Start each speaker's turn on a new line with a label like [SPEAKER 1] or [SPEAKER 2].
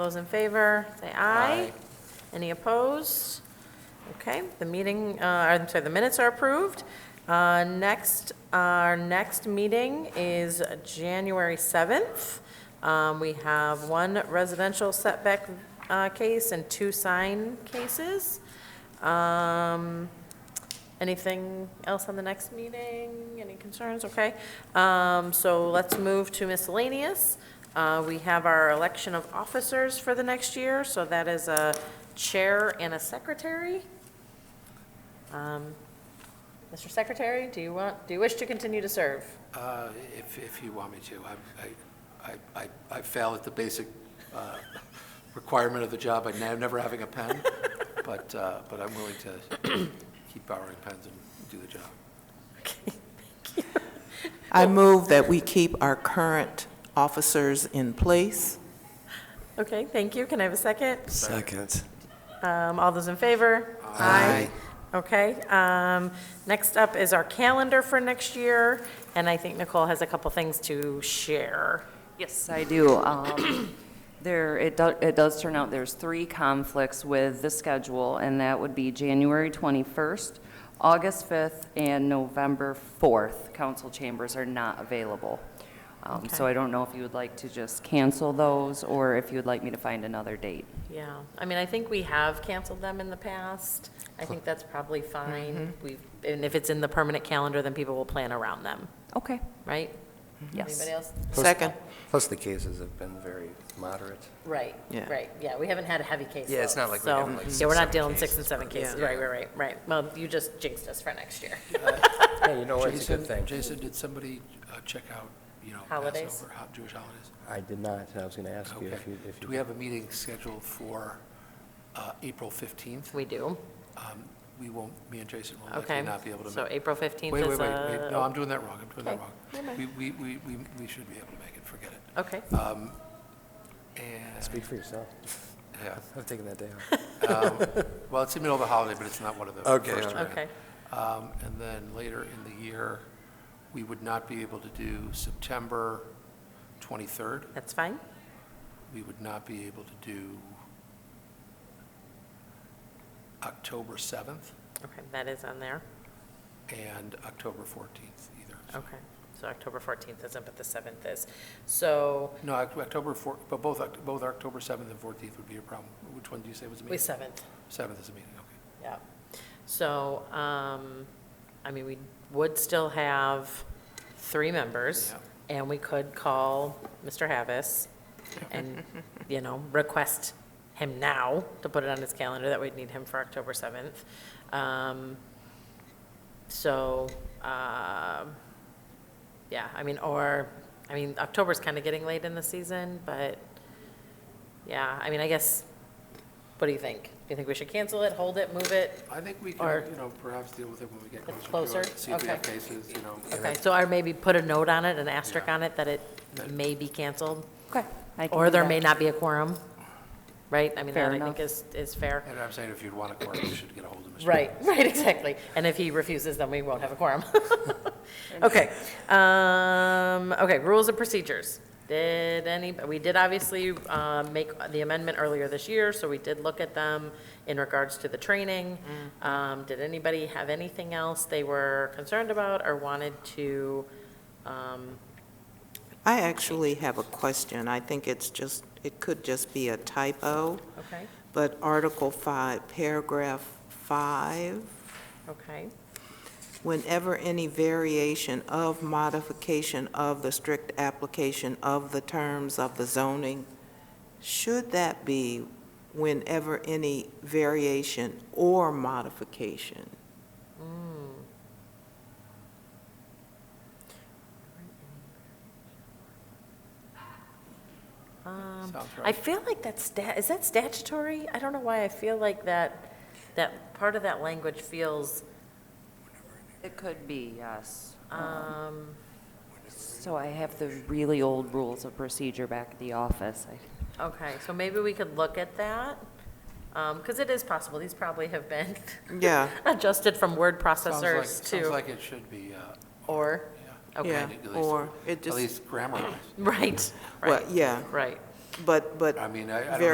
[SPEAKER 1] Those in favor, say aye. Any opposed? Okay, the meeting, uh, I'm sorry, the minutes are approved. Uh, Next, our next meeting is January 7th. Um, We have one residential setback uh, case and two sign cases. Um, Anything else on the next meeting? Any concerns? Okay. Um, So let's move to miscellaneous. Uh, We have our election of officers for the next year, so that is a chair and a secretary. Um, Mr. Secretary, do you want, do you wish to continue to serve?
[SPEAKER 2] Uh, If, if you want me to. I- I, I, I I fail at the basic uh, requirement of the job, I ne- never having a pen, but, uh, but I'm willing to keep borrowing pens and do the job.
[SPEAKER 3] I move that we keep our current officers in place.
[SPEAKER 1] Okay, thank you. Can I have a second?
[SPEAKER 4] Second.
[SPEAKER 1] Um, All those in favor? Aye. Okay. um, Next up is our calendar for next year, and I think Nicole has a couple things to share.
[SPEAKER 5] Yes, I do. Um, There, it does, it does turn out there's three conflicts with the schedule, and that would be January 21st, August 5th, and November 4th. Council chambers are not available. Um, So
[SPEAKER 1] Okay.
[SPEAKER 5] I don't know if you would like to just cancel those, or if you would like me to find another date.
[SPEAKER 1] Yeah, I mean, I think we have canceled them in the past. I think that's probably fine.
[SPEAKER 2] Mm-hmm.
[SPEAKER 1] We've, and if it's in the permanent calendar, then people will plan around them,
[SPEAKER 5] Okay,
[SPEAKER 1] right?
[SPEAKER 2] Mm-hmm.
[SPEAKER 5] yes.
[SPEAKER 1] Anybody else?
[SPEAKER 3] Second.
[SPEAKER 4] Plus, the cases have been very moderate.
[SPEAKER 1] Right,
[SPEAKER 3] Yeah.
[SPEAKER 1] right, yeah, we haven't had a heavy case.
[SPEAKER 4] Yeah, it's
[SPEAKER 1] load,
[SPEAKER 4] not like we
[SPEAKER 1] so-
[SPEAKER 4] have, like,
[SPEAKER 1] Yeah, we're
[SPEAKER 4] six,
[SPEAKER 1] not
[SPEAKER 4] seven
[SPEAKER 1] dealing six
[SPEAKER 4] cases.
[SPEAKER 1] and seven cases,
[SPEAKER 3] Yeah.
[SPEAKER 1] right, right, right, right. Well, you just jinxed us for next year.
[SPEAKER 4] Hey, you know what, it's a good
[SPEAKER 2] Jason,
[SPEAKER 4] thing.
[SPEAKER 2] Jason, did somebody uh, check out, you know,
[SPEAKER 1] Holidays?
[SPEAKER 2] Passover, ho- Jewish holidays?
[SPEAKER 4] I did not, I was going to ask
[SPEAKER 2] Okay.
[SPEAKER 4] you if you, if you.
[SPEAKER 2] Do we have a meeting scheduled for uh, April 15th?
[SPEAKER 1] We do,
[SPEAKER 2] Um, We won't, me and Jason will
[SPEAKER 1] okay.
[SPEAKER 2] likely not be able to.
[SPEAKER 1] So
[SPEAKER 2] make-
[SPEAKER 1] April 15th
[SPEAKER 2] Wait,
[SPEAKER 1] is uh,
[SPEAKER 2] wait, wait, wait, no, I'm
[SPEAKER 1] a,
[SPEAKER 2] doing that wrong, I'm doing that
[SPEAKER 1] Okay,
[SPEAKER 2] wrong. We, we, we, we we should be able to make it, forget it.
[SPEAKER 1] okay,
[SPEAKER 2] Um, and-
[SPEAKER 4] Speak for yourself.
[SPEAKER 2] yeah.
[SPEAKER 4] I'm taking that day off.
[SPEAKER 2] Well, it's the middle of the holiday, but it's not one of the
[SPEAKER 4] Okay,
[SPEAKER 2] first.
[SPEAKER 4] all
[SPEAKER 2] around.
[SPEAKER 1] okay.
[SPEAKER 2] Um, And then later in the year, we would not be able to do September 23rd.
[SPEAKER 1] That's fine.
[SPEAKER 2] We would not be able to do October 7th
[SPEAKER 1] Okay, that is on there.
[SPEAKER 2] and October 14th either.
[SPEAKER 1] Okay, so October 14th isn't, but the 7th is. So,
[SPEAKER 2] No, Oc- October 4, but both, Oct- both October 7th and 14th would be a problem. Which one do you say was a
[SPEAKER 1] we,
[SPEAKER 2] meeting?
[SPEAKER 1] 7th.
[SPEAKER 2] 7th is a meeting, okay.
[SPEAKER 1] Yeah. So, um, I mean, we would still have three members, and we could call Mr. Havas and, you know, request him now to put it on his calendar, that we'd need him for October 7th. Um, So, um, yeah, I mean, or, I mean, October's kind of getting late in the season, but, yeah, I mean, I guess, what do you think? Do you think we should cancel it, hold it, move it?
[SPEAKER 2] I think we
[SPEAKER 1] Or-
[SPEAKER 2] can, you know, perhaps deal with it when we get
[SPEAKER 1] It's
[SPEAKER 2] closer to
[SPEAKER 1] closer?
[SPEAKER 2] it. See if we have
[SPEAKER 1] Okay.
[SPEAKER 2] cases, you know.
[SPEAKER 1] Okay, so or maybe put a note on it, an asterisk
[SPEAKER 2] Yeah.
[SPEAKER 1] on it, that it may be canceled,
[SPEAKER 5] Okay. I can
[SPEAKER 1] or
[SPEAKER 5] do
[SPEAKER 1] there
[SPEAKER 5] that.
[SPEAKER 1] may not be a quorum, right? I mean,
[SPEAKER 5] Fair
[SPEAKER 1] that I think
[SPEAKER 5] enough.
[SPEAKER 1] is, is fair.
[SPEAKER 2] And I'm saying if you'd want a quorum, you should get a hold of Mr.
[SPEAKER 1] Right, right, exactly. And if he refuses, then we won't have a quorum. Okay, um, okay, rules and procedures. Did any, we did obviously, um, make the amendment earlier this year, so we did look at them in regards to the training.
[SPEAKER 5] Mm.
[SPEAKER 1] Um, did anybody have anything else they were concerned about or wanted to, um,
[SPEAKER 3] I actually have a question. I think it's just, it could just be a typo,
[SPEAKER 1] okay,
[SPEAKER 3] but Article 5, Paragraph 5,
[SPEAKER 1] okay.
[SPEAKER 3] whenever any variation of modification of the strict application of the terms of the zoning, should that be whenever any variation or modification?
[SPEAKER 1] Um,
[SPEAKER 2] Sounds
[SPEAKER 1] I
[SPEAKER 2] right.
[SPEAKER 1] feel like that's, sta- is that statutory? I don't know why I feel like that, that part of that language feels,
[SPEAKER 5] It could be, yes.
[SPEAKER 1] um,
[SPEAKER 5] So I have the really old rules of procedure back at the office. I
[SPEAKER 1] Okay, so maybe we could look at that, because it is possible, these probably have been
[SPEAKER 3] Yeah.
[SPEAKER 1] adjusted from word
[SPEAKER 2] Sounds like-
[SPEAKER 1] processors
[SPEAKER 2] Sounds
[SPEAKER 1] to,
[SPEAKER 2] like it should be, uh,
[SPEAKER 1] or,
[SPEAKER 2] yeah.
[SPEAKER 3] Yeah,
[SPEAKER 1] okay,
[SPEAKER 2] At least-
[SPEAKER 3] or it
[SPEAKER 2] At
[SPEAKER 3] just,
[SPEAKER 2] least grammar-wise.
[SPEAKER 1] right,
[SPEAKER 3] well,
[SPEAKER 1] right,
[SPEAKER 3] yeah,
[SPEAKER 1] right.
[SPEAKER 3] but, but
[SPEAKER 2] I mean, I I don't
[SPEAKER 3] Very